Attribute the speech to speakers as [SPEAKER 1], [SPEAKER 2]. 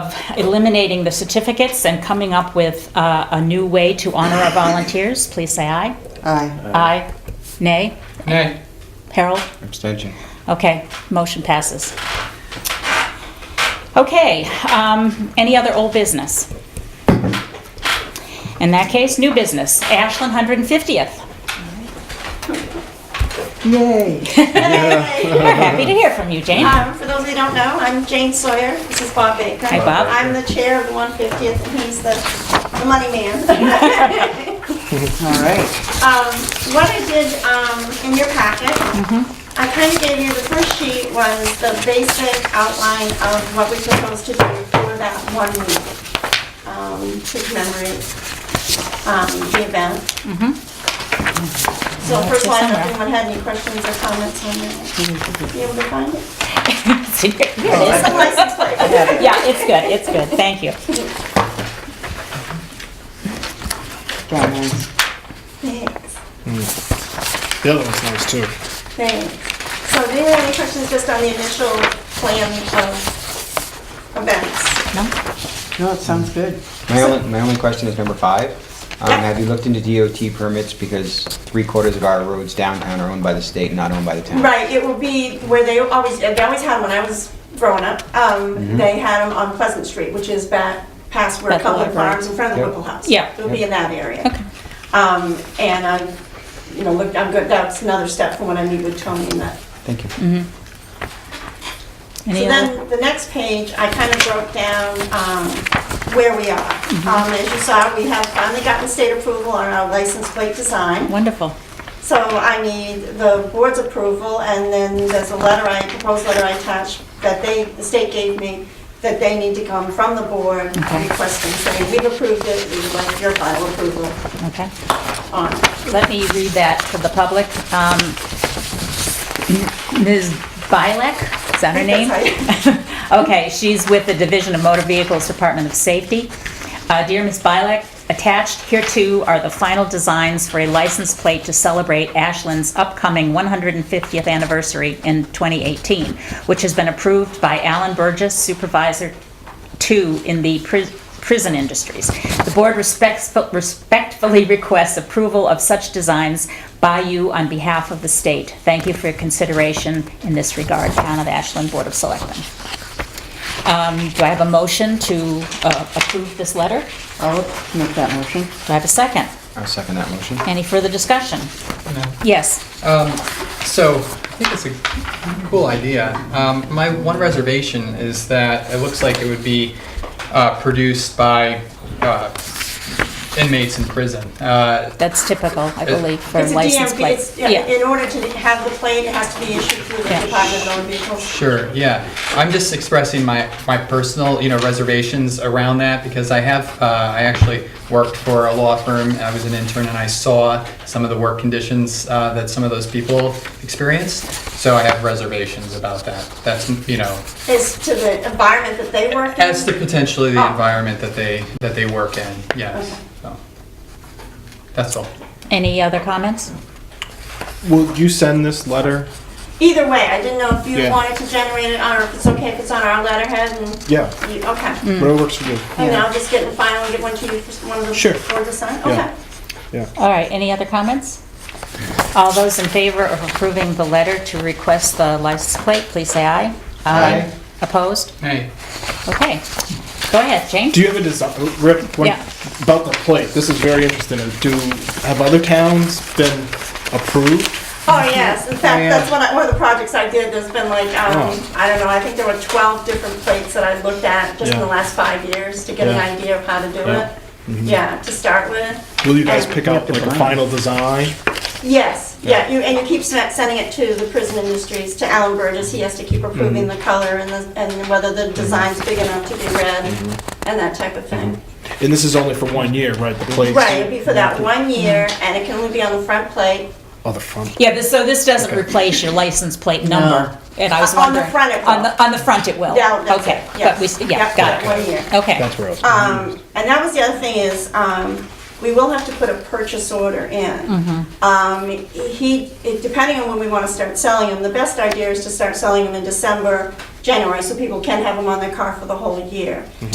[SPEAKER 1] of eliminating the certificates and coming up with uh, a new way to honor our volunteers, please say aye.
[SPEAKER 2] Aye.
[SPEAKER 1] Aye. Nay?
[SPEAKER 3] Nay.
[SPEAKER 1] Harold?
[SPEAKER 3] Abstention.
[SPEAKER 1] Okay, motion passes. Okay, um, any other old business? In that case, new business, Ashland 150th.
[SPEAKER 2] Yay.
[SPEAKER 1] We're happy to hear from you, Jane.
[SPEAKER 4] Um, for those who don't know, I'm Jane Sawyer. This is Bob Baker.
[SPEAKER 1] Hi, Bob.
[SPEAKER 4] I'm the chair of the 150th, and he's the, the money man.
[SPEAKER 2] All right.
[SPEAKER 4] um, what I did um, in your packet,
[SPEAKER 1] Mm-hmm.
[SPEAKER 4] I kind of gave you the first sheet was the basic outline of what we proposed to do for that one week um, to commemorate um, the event.
[SPEAKER 1] Mm-hmm.
[SPEAKER 4] So first of all, I don't know if anyone had any questions or comments on that. Be able to find it.
[SPEAKER 1] Here it is.
[SPEAKER 4] It's the license plate.
[SPEAKER 1] Yeah, it's good, it's good, thank you.
[SPEAKER 2] Got mine.
[SPEAKER 4] Thanks.
[SPEAKER 5] The other one's nice too.
[SPEAKER 4] Thanks. So do you have any questions just on the initial plan of events?
[SPEAKER 1] No?
[SPEAKER 2] No, it sounds good.
[SPEAKER 3] My only, my only question is number five. Um, Have you looked into DOT permits because three quarters of our roads downtown are owned by the state, not owned by the town?
[SPEAKER 4] Right, it will be where they always, they always had when I was growing up,
[SPEAKER 3] Mm-hmm.
[SPEAKER 4] um, they had them on Pleasant Street, which is back past where
[SPEAKER 1] Back to
[SPEAKER 4] Cumberland
[SPEAKER 1] Library.
[SPEAKER 4] Farms in front of the
[SPEAKER 3] Yep.
[SPEAKER 4] Whipple House.
[SPEAKER 1] Yeah.
[SPEAKER 4] It'll be in that area.
[SPEAKER 1] Okay.
[SPEAKER 4] Um, and I, you know, looked, I'm good, that's another step for when I meet with Tony and that
[SPEAKER 3] Thank you.
[SPEAKER 1] Any
[SPEAKER 4] So
[SPEAKER 1] other?
[SPEAKER 4] then, the next page, I kind of broke down um, where we are. Um, As you saw, we have finally gotten state approval on our license plate design.
[SPEAKER 1] Wonderful.
[SPEAKER 4] So I need the board's approval, and then there's a letter I, proposed letter I attached that they, the state gave me, that they need to come from the board
[SPEAKER 1] Okay.
[SPEAKER 4] requesting, saying, we've approved it, we would like your final approval
[SPEAKER 1] Okay.
[SPEAKER 4] on it."
[SPEAKER 1] Let me read that to the public. Um, M- Ms. Bylek, is that her
[SPEAKER 4] I
[SPEAKER 1] name?
[SPEAKER 4] think that's
[SPEAKER 1] Okay, she's with the Division of Motor Vehicles Department of Safety. Uh, Dear Ms. Bylek, attached hereto are the final designs for a license plate to celebrate Ashland's upcoming 150th anniversary in 2018, which has been approved by Alan Burgess, Supervisor two in the pris- prison industries. The board respects- respectfully requests approval of such designs by you on behalf of the state. Thank you for your consideration in this regard, Town of Ashland Board of Selectmen. Um, Do I have a motion to uh, approve this letter?
[SPEAKER 2] I'll make that motion.
[SPEAKER 1] Do I have a second?
[SPEAKER 3] I'll second that motion.
[SPEAKER 1] Any further discussion? Yes.
[SPEAKER 6] Um, so I think it's a cool idea. Um, my one reservation is that it looks like it would be uh, produced by uh, inmates in prison. Uh,
[SPEAKER 1] That's typical, I believe, for
[SPEAKER 4] It's a
[SPEAKER 1] license
[SPEAKER 4] DMV,
[SPEAKER 1] plates.
[SPEAKER 4] it's, yeah, in order to have the plate, it has to be issued through the
[SPEAKER 1] Yeah.
[SPEAKER 4] Department of Motor Vehicles.
[SPEAKER 6] sure, yeah. I'm just expressing my, my personal you know reservations around that because I have uh, I actually worked for a law firm. I was an intern and I saw some of the work conditions uh, that some of those people experienced. So I have reservations about that. That's you know
[SPEAKER 4] As to the environment that they work in.
[SPEAKER 6] As to potentially
[SPEAKER 4] Oh.
[SPEAKER 6] the environment that they, that they work in, yes. So, That's all.
[SPEAKER 1] Any other comments?
[SPEAKER 5] Will you send this letter?
[SPEAKER 4] Either way, I didn't know if you
[SPEAKER 5] Yeah.
[SPEAKER 4] wanted to generate it on, or if it's okay if it's on our letterhead and
[SPEAKER 5] Yeah,
[SPEAKER 4] you, okay.
[SPEAKER 5] whatever works for you.
[SPEAKER 4] And I'll just get the final and get one to you, for one of the,
[SPEAKER 5] Sure.
[SPEAKER 4] for the sign,
[SPEAKER 5] Yeah.
[SPEAKER 4] okay.
[SPEAKER 1] All right, any other comments? All those in favor of approving the letter to request the license plate, please say aye. Aye. Opposed?
[SPEAKER 6] Hey,
[SPEAKER 1] Okay. Go ahead, Jane.
[SPEAKER 5] Do you have a design, Rick, when,
[SPEAKER 1] Yeah.
[SPEAKER 5] about the plate? This is very interesting. And Do, have other towns been approved?
[SPEAKER 4] Oh, yes, in
[SPEAKER 5] yeah.
[SPEAKER 4] fact, that's one, I- one of the projects I did, there's been like, um,
[SPEAKER 5] Oh.
[SPEAKER 4] I don't know, I think there were twelve different plates that I looked at just in the
[SPEAKER 5] Yeah.
[SPEAKER 4] last five years to get an
[SPEAKER 5] Yeah.
[SPEAKER 4] idea of how to do
[SPEAKER 5] Yeah. Mm-hmm.
[SPEAKER 4] it. Yeah, to start with.
[SPEAKER 5] Will you guys
[SPEAKER 4] And-
[SPEAKER 5] pick out like a final design?
[SPEAKER 4] Yes, yeah, you, and you keep sen- sending it to the prison industries, to Alan Burgess, he has to keep approving
[SPEAKER 1] Mm-hmm.
[SPEAKER 4] the color and the, and whether the design's big enough to be read,
[SPEAKER 1] Mm-hmm.
[SPEAKER 4] and that type of thing.
[SPEAKER 5] And this is only for one year, right? The plate?
[SPEAKER 4] Right, it'd be for that
[SPEAKER 1] Mm-hmm.
[SPEAKER 4] one year, and it can only be on the front plate.
[SPEAKER 5] Oh, the front.
[SPEAKER 1] Yeah, this- so this doesn't replace your license plate number? And I was
[SPEAKER 4] On the
[SPEAKER 1] wondering.
[SPEAKER 4] front it
[SPEAKER 1] On
[SPEAKER 4] will.
[SPEAKER 1] the, on the front it will?
[SPEAKER 4] Yeah, that's
[SPEAKER 1] Okay,
[SPEAKER 4] it,
[SPEAKER 1] but we,
[SPEAKER 4] yes.
[SPEAKER 1] s- yeah,
[SPEAKER 4] Yep,
[SPEAKER 1] got
[SPEAKER 4] that one year.
[SPEAKER 1] it. Okay.
[SPEAKER 5] That's where I was.
[SPEAKER 4] Um, and that was the other thing is, um, we will have to put a purchase order in. Um, he, it- depending on when we wanna start selling them, the best idea is to start selling them in December, January, so people can have them on their car for the whole year.